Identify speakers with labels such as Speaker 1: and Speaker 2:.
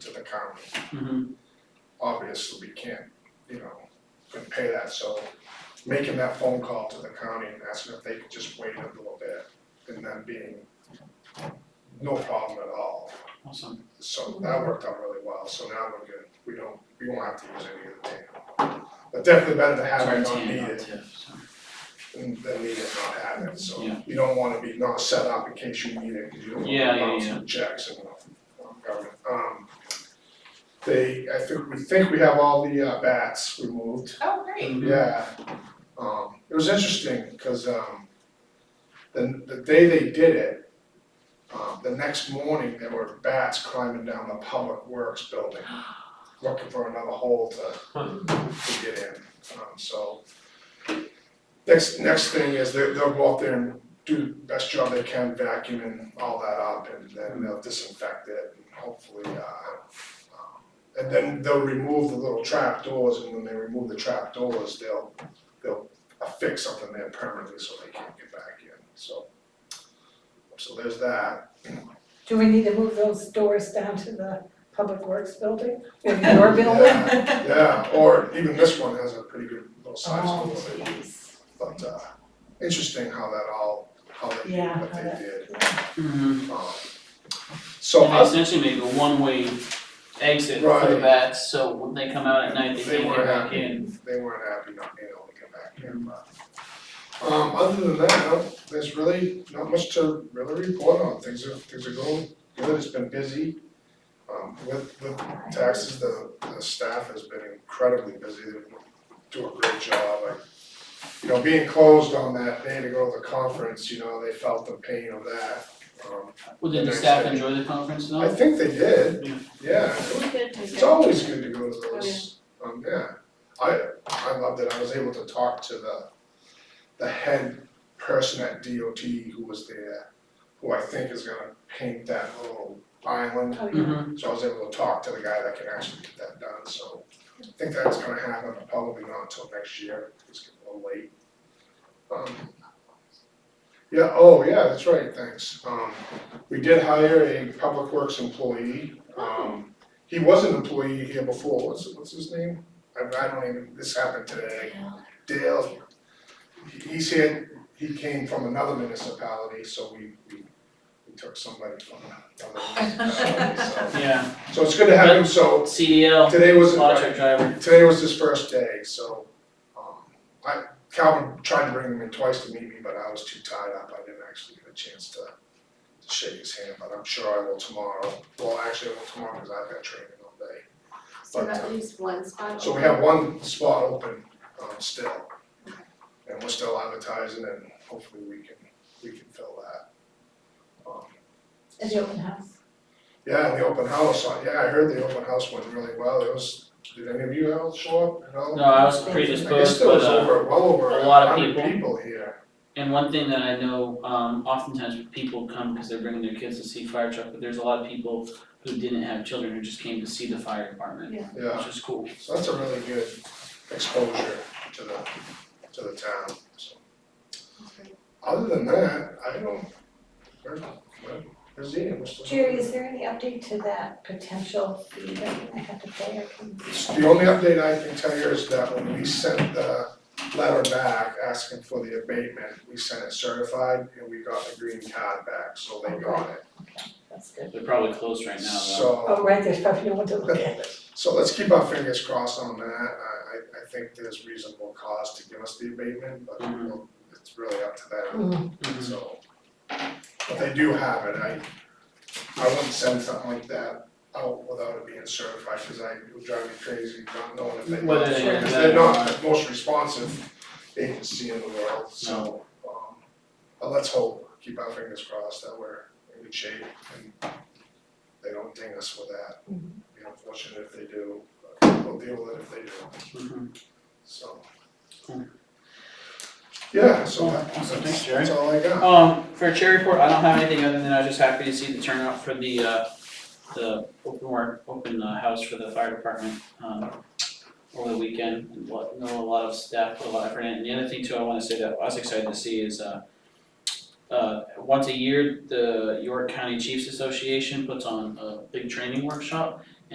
Speaker 1: county.
Speaker 2: Mhm.
Speaker 1: Obviously, we can't, you know, can pay that, so making that phone call to the county and asking if they could just wait a little bit, and then being no problem at all.
Speaker 2: Awesome.
Speaker 1: So that worked out really well, so now we're good, we don't, we won't have to use any of the TAM. But definitely better to have it not
Speaker 2: Sorry, Tina,
Speaker 1: needed
Speaker 2: not Tiff, sorry.
Speaker 1: and then need it not have it, so
Speaker 2: Yeah.
Speaker 1: you don't wanna be not set up in case you need it, cause you don't
Speaker 2: Yeah,
Speaker 1: wanna
Speaker 2: yeah,
Speaker 1: bounce
Speaker 2: yeah.
Speaker 1: some checks and uh, um, government. Um, They, I think, we think we have all the uh, bats removed,
Speaker 3: Oh, great.
Speaker 1: yeah. Um, it was interesting, cause um, the, the day they did it, um, the next morning, there were bats climbing down the public works building, looking for another hole to to get in, um, so. Next, next thing is they, they'll go out there and do the best job they can vacuuming all that up and then they'll disinfect it and hopefully, uh, um, and then they'll remove the little trap doors and when they remove the trap doors, they'll, they'll affix something there permanently so they can't get back in, so. So there's that.
Speaker 4: Do we need to move those doors down to the Public Works building or your building?
Speaker 1: Yeah, Yeah, or even this one has a pretty good little size
Speaker 4: Oh,
Speaker 1: to it.
Speaker 4: jeez.
Speaker 1: But uh interesting how that all, how they did
Speaker 4: Yeah,
Speaker 1: what
Speaker 4: how
Speaker 1: they
Speaker 4: that-
Speaker 1: did.
Speaker 2: Mhm.
Speaker 1: Um, So
Speaker 2: And they
Speaker 1: I,
Speaker 2: essentially make a one-way exit for the
Speaker 1: Right.
Speaker 2: bats, so when they come out at night, they
Speaker 1: They
Speaker 2: can't
Speaker 1: were
Speaker 2: get back
Speaker 1: happy.
Speaker 2: in.
Speaker 1: they weren't happy not being able to get back in, but um other than that, no, there's really not much to really report on. Things are things are going good, it's been busy. Um with with taxes, the the staff has been incredibly busy, they do a great job, I you know, being closed on that day to go to the conference, you know, they felt the pain of that. Um
Speaker 2: Well, did the
Speaker 1: Next
Speaker 2: staff
Speaker 1: day.
Speaker 2: enjoy the
Speaker 1: I
Speaker 2: conference though?
Speaker 1: think they did,
Speaker 2: Yeah.
Speaker 1: yeah, it's always good to go to those, um, yeah. I, I loved it, I was able to talk to the, the head person at DOT who was there, who I think is gonna paint that little island.
Speaker 4: Oh, yeah.
Speaker 2: Mhm.
Speaker 1: So I was able to talk to the guy that can actually get that done, so I think that's gonna happen, probably not until next year, it's getting a little late. Um, Yeah, oh, yeah, that's right, thanks. Um, we did hire a public works employee, um, he was an employee here before, what's, what's his name? I, I don't even, this happened today, Dale, he- he's here, he came from another municipality, so we, we, we took somebody from another municipality, so.
Speaker 2: Yeah,
Speaker 1: So it's good to have him, so
Speaker 2: CDL,
Speaker 1: today was,
Speaker 2: lawn truck driver.
Speaker 1: today was his first day, so, um, I, Calvin tried to bring him in twice to meet me, but I was too tied up, I didn't actually get a chance to to shake his hand, but I'm sure I will tomorrow, well, actually, I will tomorrow, cause I've got training all day.
Speaker 3: So that leaves one spot.
Speaker 1: So we have one spot open, um, still, and we're still advertising, and hopefully we can, we can fill that. Um,
Speaker 4: At the open house?
Speaker 1: Yeah, and the open house, I- yeah, I heard the open house went really well, it was, did any of you all show up at all?
Speaker 2: No, I was
Speaker 1: I guess
Speaker 2: predisposed,
Speaker 1: there was
Speaker 2: but uh,
Speaker 1: over, well over a
Speaker 2: a lot of
Speaker 1: hundred
Speaker 2: people.
Speaker 1: people here,
Speaker 2: And one thing that I know, um, oftentimes people come because they're bringing their kids to see fire truck, but there's a lot of people who didn't have children who just came to see the fire department,
Speaker 1: yeah,
Speaker 2: which is cool.
Speaker 1: so that's a really good exposure to the, to the town, so. Other than that, I don't, where, where, where's Ian, what's the?
Speaker 4: Jerry, is there any update to that potential fee that I have to pay or can?
Speaker 1: The only update I can tell you is that when we sent the letter back asking for the abatement, we sent it certified and we got the green card back, so they got it.
Speaker 4: Okay, that's good.
Speaker 2: They're probably closed right now though.
Speaker 4: Oh,
Speaker 1: So,
Speaker 4: right, there's probably no one to look at it.
Speaker 1: so let's keep our fingers crossed on that, I, I, I think there's reasonable cause to give us the abatement, but
Speaker 2: Mhm.
Speaker 1: we'll- it's really up to them,
Speaker 4: Mm,
Speaker 2: Mhm.
Speaker 1: so. But they do have it, I, I wouldn't send something like that out without it being certified, cause I, it would drive me crazy not knowing if they. got
Speaker 2: Whether
Speaker 1: it.
Speaker 2: they have
Speaker 1: Because
Speaker 2: that
Speaker 1: they're not
Speaker 2: or
Speaker 1: the most responsive agency in the world, so, um, but let's hope, keep our fingers crossed that we're in good shape and they don't ding us with that.
Speaker 4: Mhm.
Speaker 1: Be unfortunate if they do, but we'll deal with it if they do,
Speaker 2: Mhm.
Speaker 1: so.
Speaker 2: Cool.
Speaker 1: Yeah, so
Speaker 2: Cool.
Speaker 1: that-
Speaker 2: Awesome. Thanks,
Speaker 1: that's,
Speaker 2: Jerry.
Speaker 1: that's all I got.
Speaker 2: Um, for a chair report, I don't have anything other than I was just happy to see the turnout for the, uh, the open work, open uh, house for the fire department, um, over the weekend. And what- Know a lot of staff put a lot of effort in. And the other thing too, I wanna say that I was excited to see is, uh, uh, once a year, the York County Chiefs Association puts on a big training workshop.